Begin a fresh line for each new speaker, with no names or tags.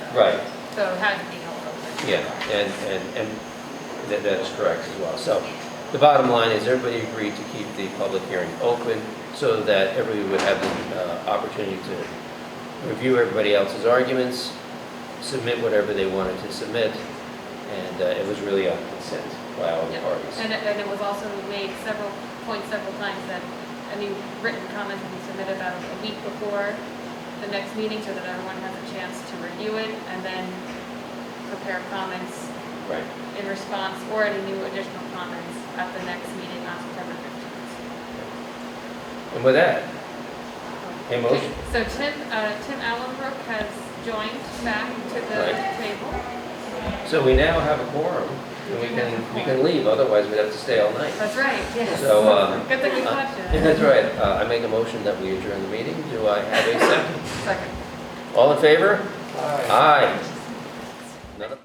Right,
So it had to be held open.
yeah, and, and, and that, that is correct as well. So the bottom line is everybody agreed to keep the public hearing open so that everybody would have the uh, opportunity to review everybody else's arguments, submit whatever they wanted to submit, and uh, it was really on consent by all the
Yeah.
parties.
And, it- and it was also made several, points several times that, I mean, written comments will be submitted about a week before the next meeting so that everyone has a chance to review it and then prepare comments
Right.
in response or any new additional comments at the next meeting on September 15th.
And with that, a motion,
So Tim, uh, Tim Allenbrook has joined back to the
Right.
table.
so we now have a quorum, and we can, we can leave, otherwise we'd have to stay all night.
That's right, yes.
So, uh,
Good thing you
uh,
caught
Yeah,
you.
That's right. Uh, I make a motion that we adjourn the meeting. Do I have a second?
Second.
All in favor? Aye.